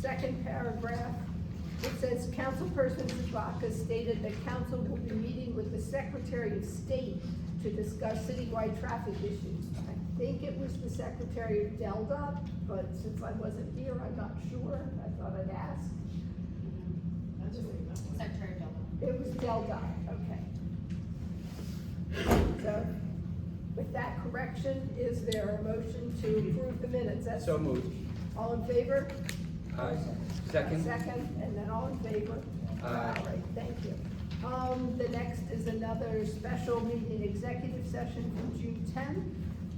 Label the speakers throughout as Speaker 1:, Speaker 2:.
Speaker 1: second paragraph, it says, "Councilperson Zabaka stated that council will be meeting with the Secretary of State to discuss citywide traffic issues." I think it was the Secretary of Delta, but since I wasn't here, I'm not sure, I thought I'd ask.
Speaker 2: That's a big number.
Speaker 3: Secretary Dolan.
Speaker 1: It was Deldi, okay. So, with that correction, is there a motion to approve the minutes? That's-
Speaker 4: So moved.
Speaker 1: All in favor?
Speaker 4: Aye. Second?
Speaker 1: Second, and then all in favor?
Speaker 4: Aye.
Speaker 1: All right, thank you. Um, the next is another special meeting, executive session from June tenth.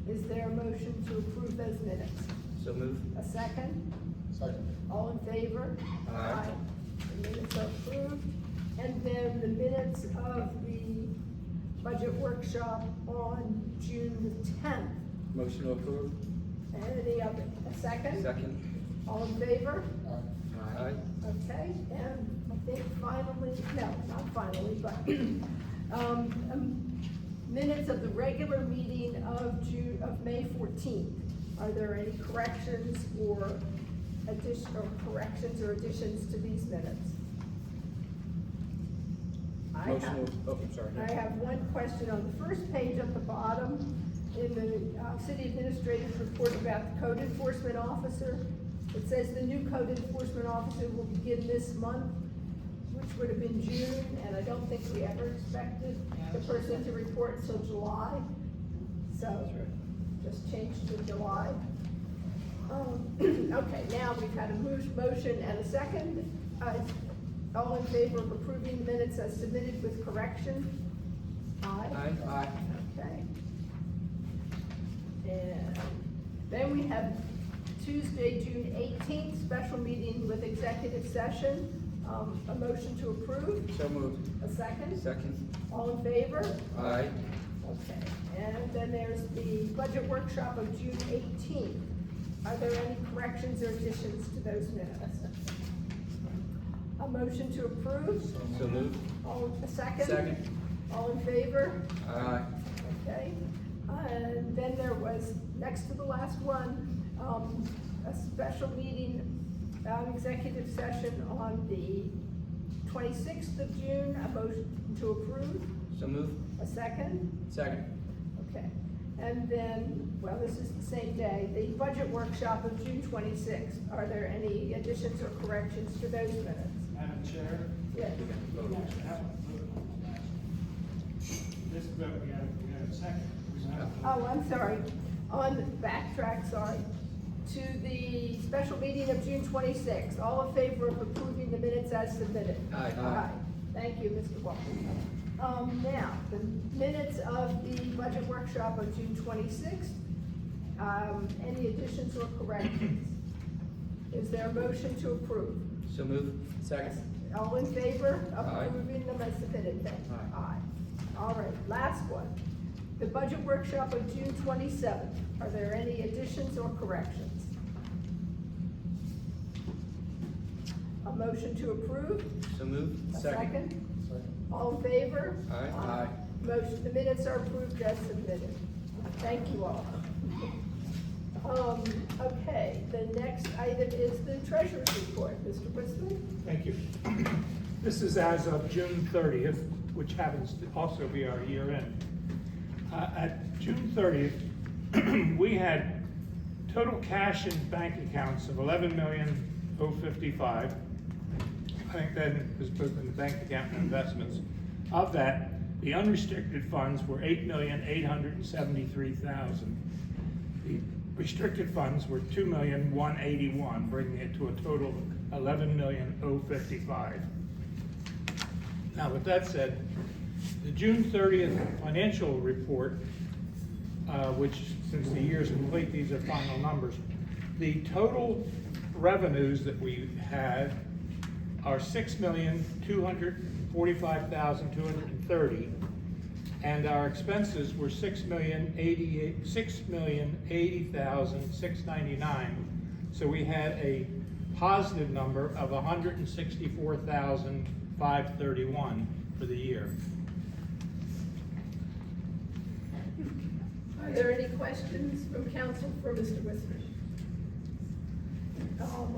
Speaker 1: Is there a motion to approve those minutes?
Speaker 4: So moved.
Speaker 1: A second?
Speaker 5: Second.
Speaker 1: All in favor?
Speaker 4: Aye.
Speaker 1: The minutes are approved. And then the minutes of the budget workshop on June the tenth.
Speaker 4: Motion to approve?
Speaker 1: Any other, a second?
Speaker 4: Second?
Speaker 1: All in favor?
Speaker 5: Aye.
Speaker 4: Aye.
Speaker 1: Okay, and I think finally, no, not finally, but, um, um, minutes of the regular meeting of Ju, of May fourteenth. Are there any corrections or addition, or corrections or additions to these minutes? I
Speaker 4: Motion
Speaker 1: have-
Speaker 4: to- oh, I'm sorry.
Speaker 1: I have one question on the first page at the bottom, in the, uh, city administrator's report about the code enforcement officer. It says the new code enforcement officer will begin this month, which would have been June, and I don't think we ever expected the person to report until July. So, just change to July. Um, okay, now we've had a mo- motion and a second. Uh, all in favor of approving the minutes as submitted with correction? Aye?
Speaker 4: Aye. Aye.
Speaker 1: Okay. And then we have Tuesday, June eighteenth, special meeting with executive session. Um, a motion to approve,
Speaker 4: So moved.
Speaker 1: a second?
Speaker 4: Second?
Speaker 1: All in favor?
Speaker 4: Aye.
Speaker 1: Okay, and then there's the budget workshop of June eighteenth. Are there any corrections or additions to those minutes? A motion to approve?
Speaker 4: So moved.
Speaker 1: All, a second?
Speaker 4: Second.
Speaker 1: All in favor?
Speaker 4: Aye.
Speaker 1: Okay, and then there was, next to the last one, um, a special meeting, um, executive session on the twenty-sixth of June, a motion to approve,
Speaker 4: So moved.
Speaker 1: a second?
Speaker 4: Second?
Speaker 1: Okay, and then, well, this is the same day, the budget workshop of June twenty-sixth. Are there any additions or corrections to those minutes?
Speaker 6: Madam Chair,
Speaker 1: Yes.
Speaker 4: We got to vote.
Speaker 6: we have to have a vote on that. This vote, we have, we have a second. We have a-
Speaker 1: Oh, I'm sorry, on the backtrack, sorry, to the special meeting of June twenty-sixth. All in favor of approving the minutes as submitted?
Speaker 4: Aye.
Speaker 1: Aye. Thank you, Mr. Walker. Um, now, the minutes of the budget workshop of June twenty-sixth. Um, any additions or corrections? Is there a motion to approve?
Speaker 4: So moved. Second?
Speaker 1: All in favor of
Speaker 4: Aye.
Speaker 1: approving them as submitted, then?
Speaker 4: Aye.
Speaker 1: All right, last one. The budget workshop of June twenty-seventh. Are there any additions or corrections? A motion to approve?
Speaker 4: So moved.
Speaker 1: A second? All in favor?
Speaker 4: Aye. Aye.
Speaker 1: Motion, the minutes are approved as submitted. Thank you all. Um, okay, the next item is the treasurer's report, Mr. Whistler?
Speaker 7: Thank you. This is as of June thirtieth, which happens to also be our year end. Uh, at June thirtieth, we had total cash in bank accounts of eleven million oh fifty-five. I think that was both in the bank account and investments. Of that, the unrestricted funds were eight million eight hundred and seventy-three thousand. The restricted funds were two million, one eighty-one, bringing it to a total of eleven million, oh fifty-five. Now, with that said, the June thirtieth financial report, uh, which, since the year's complete, these are final numbers. The total revenues that we had are six million, two hundred forty-five thousand, two hundred and thirty. And our expenses were six million eighty-eight, six million eighty thousand, six ninety-nine. So we had a positive number of hundred and sixty-four thousand, five thirty-one for the year.
Speaker 1: Are there any questions from council for Mr. Whistler? Um,